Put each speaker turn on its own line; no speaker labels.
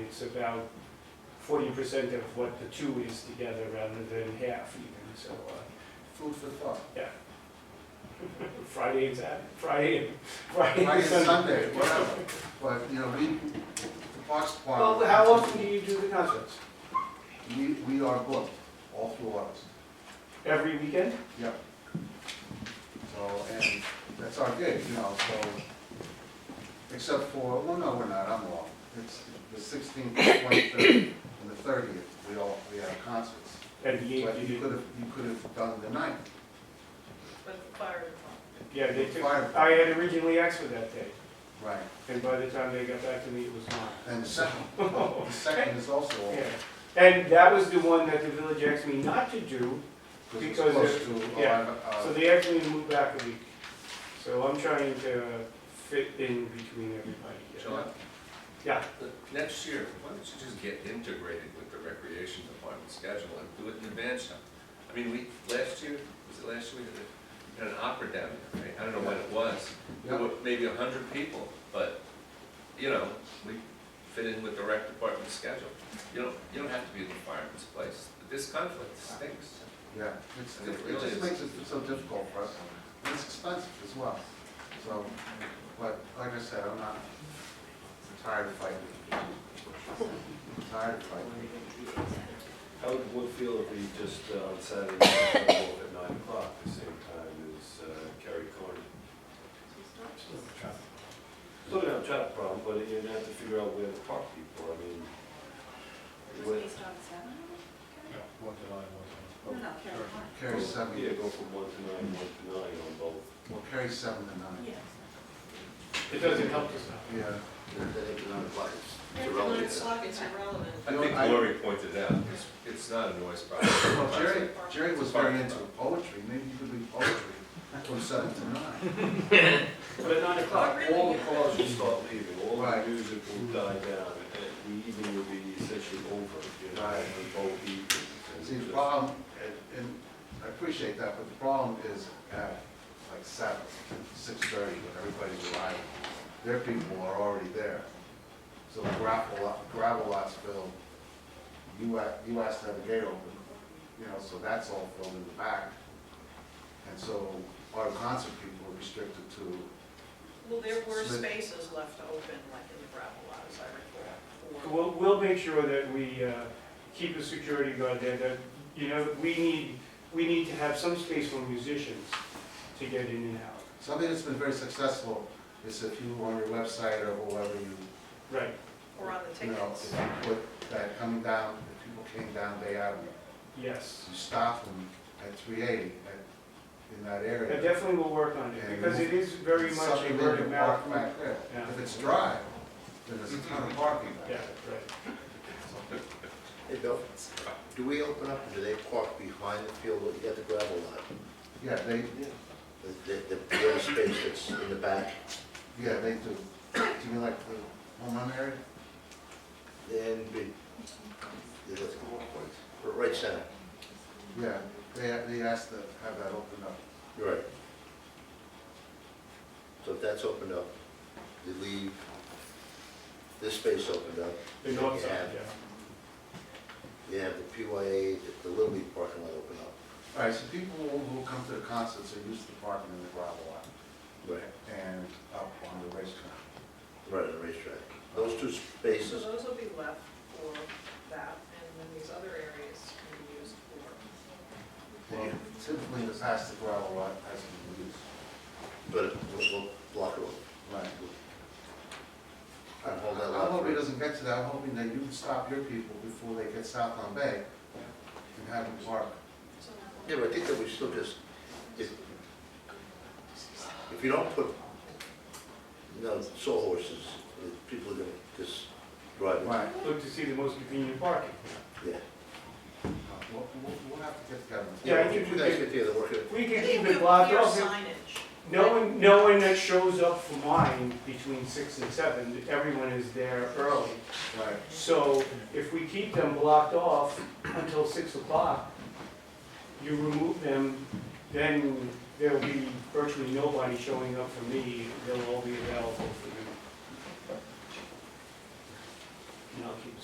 it's about forty percent of what the two is together rather than half even, so, uh,
Food for thought.
Friday and Saturday, Friday and, Friday
Friday
and
and
Sunday.
Sunday, whatever, but, you know, we, the parks department.
Well, how often do you do the concerts?
We, we are booked all through August,
Every weekend?
so, and that's our gig, you know, so, except for, well, no, we're not, I'm wrong. It's the sixteenth, twenty-third, and the thirtieth, we all, we have concerts.
And the
But
eighth,
you
you
could
do?
have, you could have done the ninth.
But the fire department.
Yeah, they took,
Five.
I had originally asked for that day,
Right.
and by the time they got back to me, it was gone.
And the second, the second is also,
Yeah,
all-
and that was the one that the village asked me not to do,
because it's
Because
close
it-
to,
yeah.
our,
so
uh,
they actually moved back a week. So I'm trying to fit in between everybody.
John?
Yeah.
Next year, why don't you just get integrated with the recreation department schedule and do it in advance now? I mean, we, last year, was it last year, we had an opera down there, right? I don't know when it was. There
yeah,
were maybe a hundred people, but, you know, we fit in with the rec department schedule. You don't, you don't have to be in the fireman's place. This conflict stinks.
yeah. It's,
And it
it
really
just
is.
makes it so difficult for us, and it's expensive as well, so, but, like I said, I'm not, I'm tired of fighting. I'm Tired of fighting.
How would one feel if we just uh, on Saturday night, got off at nine o'clock, the same time as uh, Kerry Corner? Still gonna have a traffic problem, but you're gonna have to figure out where to park people, I mean.
It was
what-
based on seven?
One to nine, one
No, no, Carolina.
Carry seven,
Yeah, go from one to nine, one to nine on both.
well, carry seven to nine.
Yes.
It doesn't help us
Yeah.
It's irrelevant.
it's irrelevant.
I think Lori pointed out, it's, it's not a noise problem.
Well, Jerry, Jerry was very into poetry, maybe you could read poetry from seven to nine.
But at nine
Oh,
o'clock,
All the cars will start leaving, all
Right.
the music will die down, and the evening will be essentially over, you know,
Right.
on both evenings. and
See, the
just-
problem, and- and I appreciate that, but the problem is at like seven, six thirty, when everybody's arriving, their people are already there. So the gravel lot, gravel lots filled, you, a- you asked to have a gate open, you know, so that's all filled in the back. And so our concert people are restricted to,
Well, there were
Smith.
spaces left open, like in the gravel lot, as I recall.
we'll, we'll make sure that we uh, keep a security guard there, that, you know, we need, we need to have some space for musicians to get in and out.
something that's been very successful is if you, on your website or whoever you
Right,
Or on the
you know, if
tickets.
you put that coming down, if people came down Bay Avenue,
yes.
you stop them at three eighty at, in that
I
area.
definitely will work on it,
And
because it is very
It's
much a
something they
word
can
of
park
mouth.
back there.
Yeah. Mm-hmm.
If it's dry, then there's a ton of parking back
Yeah,
there.
right.
Hey, Bill, do we open up, or do they park behind the field, you got the gravel lot?
Yeah, they,
The, the, the little space that's in the back,
yeah, they do. Do you mean like the home run area?
then be, the, the right center,
Yeah, they, they asked to have that opened up.
you're right. So if that's opened up, they leave this space opened up,
The north side,
Yeah.
yeah.
they have the PYA, the Little League parking lot open up.
All right, so people who who come to the concerts are used to parking in the gravel lot
Right.
and up on the racetrack.
Right, on the racetrack. Those two
So
spaces,
those will be left for that, and then these other areas can be used for,
Well, typically in the past, the gravel lot has been used.
but we'll, we'll block it off.
Right.
And hold that
I'm
lot
hoping
free.
it doesn't get to that, I'm hoping that you can stop your people before they get south on Bay and have them park.
so.
Yeah, but I think that we still just, if, if you don't put, you know, sawhorses, uh, people are gonna just drive. it.
Right.
Look to see the most convenient parking.
Yeah.
We'll, we'll, we'll have to get together.
Yeah, I think
You
we
guys
could-
get together, work it,
We can
Maybe
keep
we'll
it blocked
clear
off.
Signage.
No one, no one that shows up for mine between six and seven, everyone is there early.
Right.
So if we keep them blocked off until six o'clock, you remove them, then there'll be virtually nobody showing up for me, they'll all be available for you. And I'll keep a